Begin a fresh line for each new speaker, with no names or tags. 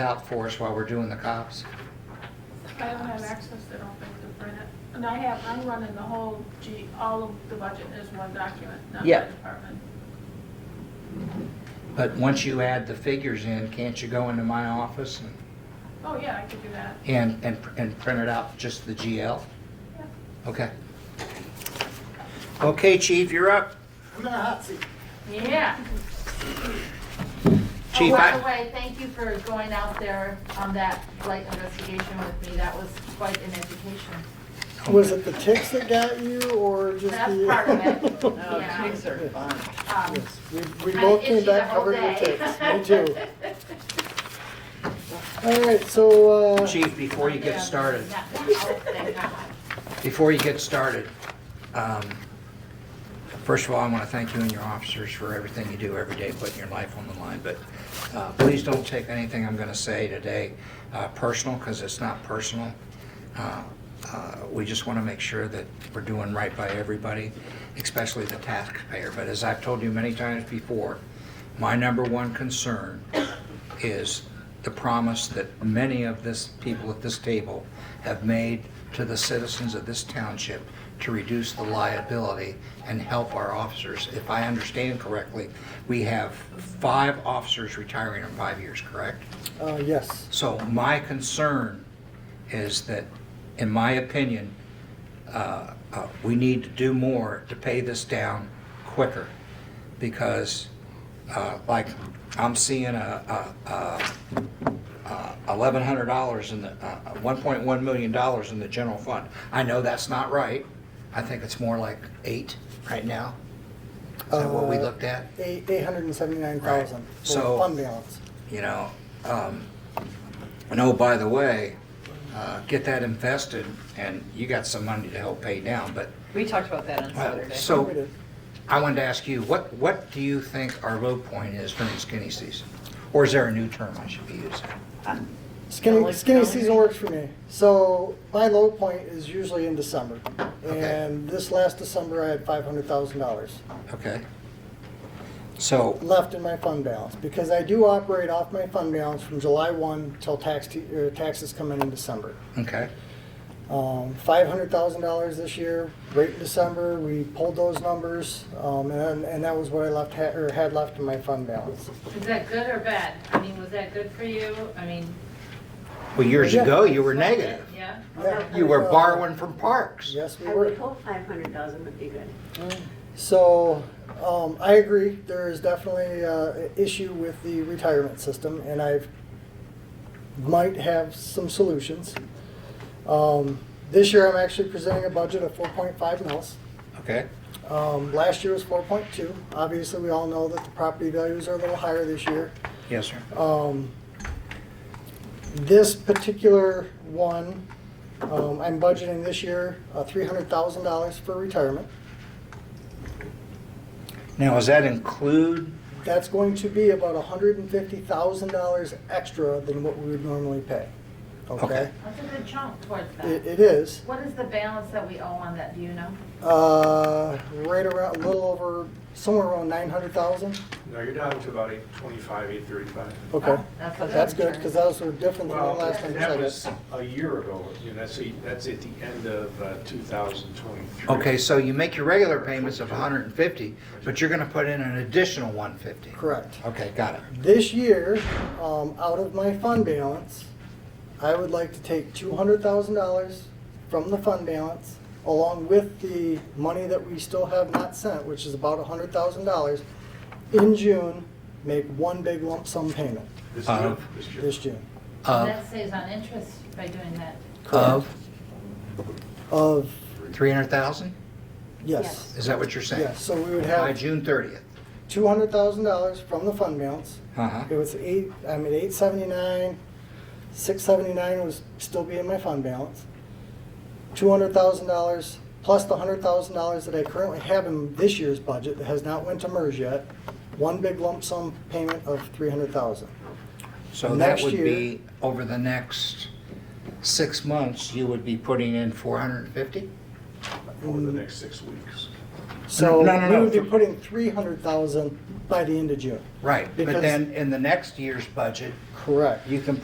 out for us while we're doing the cops.
I don't have access to don't think to print it. And I have, I'm running the whole G, all of the budget is one document, not by
Yeah.
department.
But once you add the figures in, can't you go into my office and,
Oh, yeah, I could do that.
and, and, and print it out, just the GL?
Yeah.
Okay. Okay, chief, you're up.
I'm in a hot seat.
Yeah.
Chief,
Oh, by the
I,
way, thank you for going out there on that light investigation with me. That was quite an education.
Was it the ticks that got you, or just the?
That's part of it. Yeah.
Pigs are fun.
Um,
Yes, we, we
I'm
both came
itchy the
back
whole
covered with
day.
ticks, me too. All right, so, uh,
chief, before you get started,
Not that whole thing, not much.
before you get started, um, first of all, I want to thank you and your officers for everything you do every day, putting your life on the line. But uh, please don't take anything I'm going to say today uh, personal, because it's not personal. Uh, uh, We just want to make sure that we're doing right by everybody, especially the taxpayer. But as I've told you many times before, my number one concern is the promise that many of this, people at this table have made to the citizens of this township to reduce the liability and help our officers. If I understand correctly, we have five officers retiring in five years, correct?
uh, yes,
So my concern is that, in my opinion, uh, uh, we need to do more to pay this down quicker. Because, uh, like, I'm seeing a, a, a eleven hundred dollars in the, uh, one point one million dollars in the general fund. I know that's not right. I think it's more like eight right now. Is that what we
Uh,
looked at?
eight, eight hundred and seventy-nine thousand
Right. So-
for fund balance.
you know. Um, and oh, by the way, uh, get that invested, and you got some money to help pay down. But
We talked about that on Saturday.
We
so
did.
I wanted to ask you, what what do you think our low point is during skinny season, or is there a new term I should be using?
Skinny,
Like
skinny
calendar.
season works for me. So my low point is usually in December.
Okay.
And this last December, I had five hundred thousand dollars
Okay. So
left in my fund balance because I do operate off my fund balance from July one till tax, t- er, taxes come in in December.
okay,
Um, five hundred thousand dollars this year, right in December, we pulled those numbers, um, and, and that was what I left, ha- or had left in my fund balance.
Is that good or bad? I mean, was that good for you? I mean.
well, years
Yeah.
ago you were
was it?
negative.
Yeah?
Yeah.
You were borrowing from parks.
Yes, we
I would
were.
hope five hundred thousand would be good.
So, um, I agree, there is definitely, uh, an issue with the retirement system, and I've, might have some solutions. Um, this year, I'm actually presenting a budget of four point five mils.
Okay.
Um, last year was four point two, obviously, we all know that the property values are a little higher this year.
Yes, sir.
Um, This particular one, um, I'm budgeting this year uh, $300,000 for retirement.
Now, does that include?
That's going to be about $150,000 extra than what we would normally pay.
Okay.
Okay?
That's a good chunk towards
It
that.
it is,
What is the balance that we owe on that, do you know?
uh, right around, a little over, somewhere around 900,000.
No, you're down to about eight twenty-five, eight thirty-five.
Okay,
That's what
that's
I'm
good, because those were different than the
Well,
last time.
that
I
was
got-
a year ago, you know, that's, a- that's at the end of uh, 2023.
Okay, so you make your regular payments of 150, but you're going to put in an additional 150.
Correct.
Okay, got it.
This year, um, out of my fund balance, I would like to take two hundred thousand dollars from the fund balance, along with the money that we still have not sent, which is about hundred thousand dollars, in June, make one big lump sum payment
This
Uh,
year, this year.
this June
And
Of,
That saves on interest by doing that.
of
of,
300,000?
yes.
Is that what you're saying?
Yes, so we would
By
have
June 30th?
two hundred thousand dollars from the fund balance.
Uh-huh.
It was eight, I'm at eight seventy-nine, six seventy-nine was still be in my fund balance. Two hundred thousand dollars, plus the hundred thousand dollars that I currently have in this year's budget that has not went to MERS yet, one big lump sum payment of three hundred thousand.
So that
Next
would
year-
be, over the next six months, you would be putting in 450?
Over the next six weeks.
So
No, no,
we
no,
would be
for-
putting three hundred thousand by the end of June.
Right, but
Because-
then in the next year's budget,
Correct.
you can